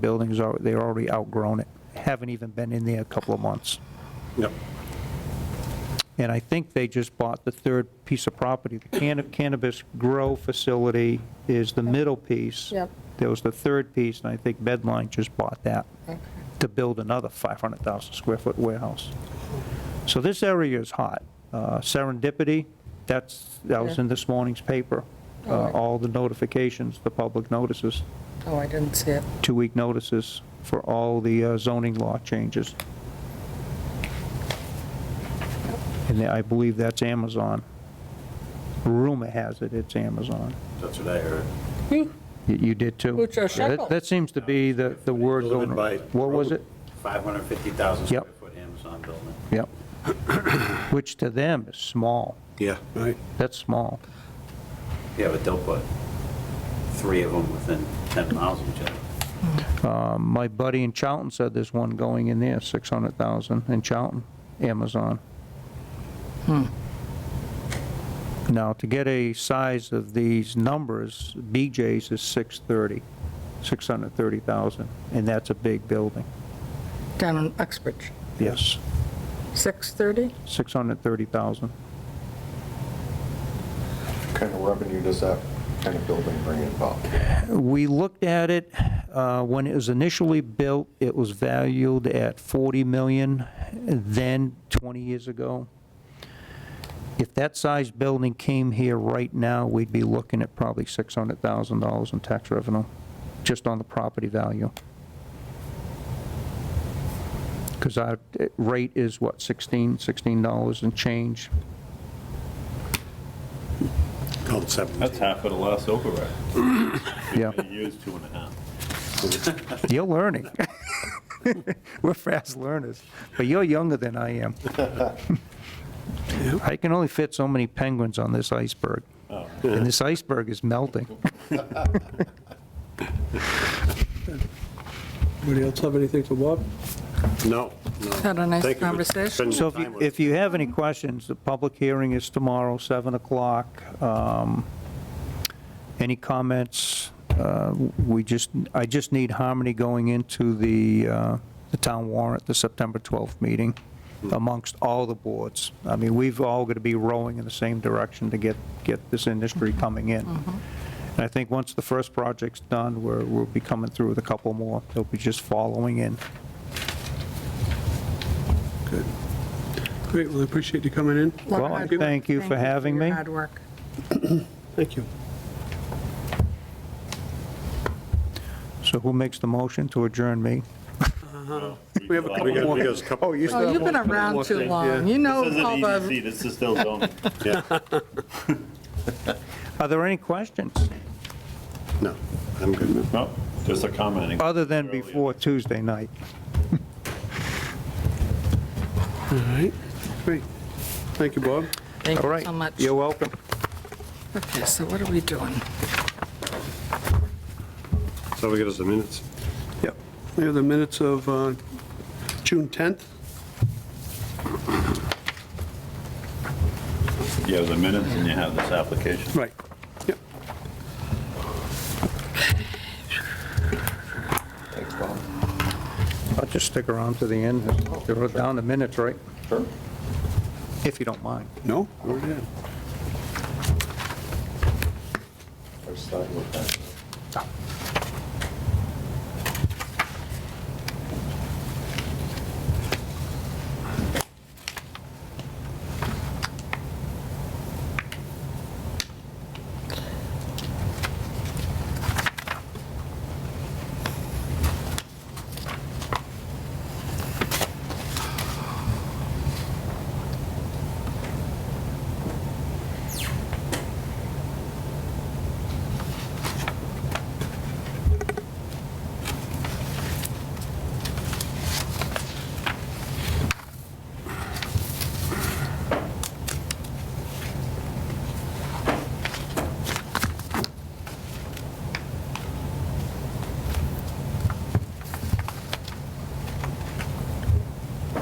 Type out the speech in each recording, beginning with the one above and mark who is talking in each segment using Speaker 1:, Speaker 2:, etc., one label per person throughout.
Speaker 1: buildings are, they're already outgrown it, haven't even been in there a couple of months.
Speaker 2: Yep.
Speaker 1: And I think they just bought the third piece of property. The canna- cannabis grow facility is the middle piece.
Speaker 3: Yep.
Speaker 1: There was the third piece, and I think Bedline just bought that to build another 500,000 square foot warehouse. So this area is hot. Uh, Serendipity, that's, that was
Speaker 3: Yeah.
Speaker 1: in this morning's paper, uh,
Speaker 3: Alright.
Speaker 1: all the notifications, the public notices,
Speaker 3: Oh, I didn't see it.
Speaker 1: two-week notices for all the uh, zoning law changes. And I believe that's Amazon. Rumor has it it's Amazon.
Speaker 2: That's what I heard.
Speaker 3: Hmm.
Speaker 1: You- You did too?
Speaker 3: Which are
Speaker 1: Yeah, that- That seems to be the, the word.
Speaker 2: Delivered by
Speaker 1: What was
Speaker 2: road.
Speaker 1: it?
Speaker 2: 550,000 square
Speaker 1: Yep.
Speaker 2: foot Amazon building.
Speaker 1: Yep. Which to them is small.
Speaker 4: Yeah. Right.
Speaker 1: That's small.
Speaker 2: Yeah, but they'll put three of them within 10 miles of each other.
Speaker 1: Um, My buddy in Charlton said there's one going in there, 600,000 in Charlton, Amazon. Now, to get a size of these numbers, BJ's is 630, 630,000, and that's a big building.
Speaker 3: Down in Uxbridge,
Speaker 1: Yes,
Speaker 3: 6:30?
Speaker 1: 630,000.
Speaker 5: kind of revenue does that kind of building bring in, Bob?
Speaker 1: We looked at it, uh, when it was initially built, it was valued at 40 million, then 20 years ago. If that size building came here right now, we'd be looking at probably $600,000 in tax revenue, just on the property value. Because our eh, rate is what, 16, $16 and change?
Speaker 4: Call it 17.
Speaker 6: That's half of the last override.
Speaker 1: Yeah,
Speaker 6: I used two and a half.
Speaker 1: you're learning. We're fast learners, but you're younger than I am. I can only fit so many penguins on this iceberg, and this iceberg is melting.
Speaker 7: Anybody else have anything for Bob?
Speaker 4: No, no.
Speaker 3: Had a nice
Speaker 4: Thank you for
Speaker 3: conversation.
Speaker 4: spending
Speaker 1: So
Speaker 4: your
Speaker 1: if
Speaker 4: time
Speaker 1: you,
Speaker 4: with us.
Speaker 1: if you have any questions, the public hearing is tomorrow, 7 o'clock. Um, Any comments? Uh, We just, I just need harmony going into the, uh, the town warrant, the September 12th meeting amongst all the boards. I mean, we've all got to be rowing in the same direction to get, get this industry coming in. And I think once the first project's done, we're, we'll be coming through with a couple more. They'll be just following in.
Speaker 7: Great, well, I appreciate you coming in.
Speaker 3: Lot of
Speaker 1: Well,
Speaker 3: hard work.
Speaker 1: thank you for having
Speaker 3: your
Speaker 1: me.
Speaker 3: Hard work.
Speaker 7: Thank you.
Speaker 1: So who makes the motion to adjourn me?
Speaker 7: Uh-huh. We have a
Speaker 6: We
Speaker 7: couple
Speaker 4: We got,
Speaker 7: more.
Speaker 4: we got a couple.
Speaker 7: you
Speaker 3: Oh, you've been around too long. You know
Speaker 6: This isn't
Speaker 3: all the,
Speaker 6: EDC, this is still zoning.
Speaker 1: Are there any questions,
Speaker 4: No, I'm good.
Speaker 6: No, just a commenting.
Speaker 1: other than before Tuesday night?
Speaker 7: All right, great. Thank you, Bob.
Speaker 3: thank
Speaker 1: All
Speaker 3: you
Speaker 1: right.
Speaker 3: so much.
Speaker 1: You're welcome.
Speaker 3: Okay, so what are we doing?
Speaker 4: So we got us the minutes.
Speaker 7: Yep. We have the minutes of uh, June 10th.
Speaker 6: You have the minutes and you have this application.
Speaker 7: Right. Yep.
Speaker 5: Thanks, Bob.
Speaker 1: I'll just stick around to the end. They're down the minutes, right?
Speaker 5: Sure.
Speaker 1: If you don't mind.
Speaker 7: No, we're good.
Speaker 5: I was starting with that.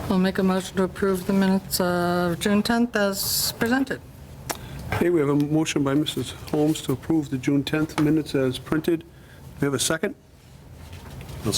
Speaker 3: We'll make a motion to approve the minutes of June 10th as presented.
Speaker 7: Okay, we have a motion by Mrs. Holmes to approve the June 10th minutes as printed. Do we have a second?